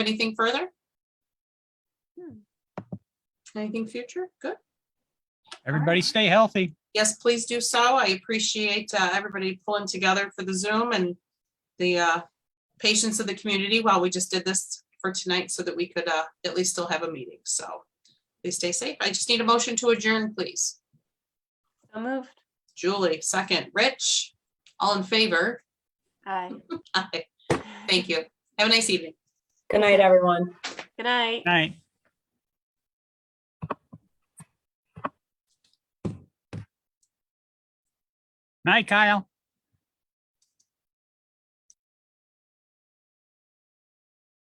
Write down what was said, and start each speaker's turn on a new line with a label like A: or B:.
A: anything further?
B: Hmm.
A: Anything future? Good.
C: Everybody stay healthy.
A: Yes, please do so. I appreciate uh, everybody pulling together for the Zoom and the uh, patience of the community while we just did this for tonight so that we could uh, at least still have a meeting. So please stay safe. I just need a motion to adjourn, please.
B: So moved.
A: Julie, second. Rich, all in favor?
B: Aye.
A: Aye. Thank you. Have a nice evening.
D: Good night, everyone.
B: Good night.
C: Night. Night, Kyle.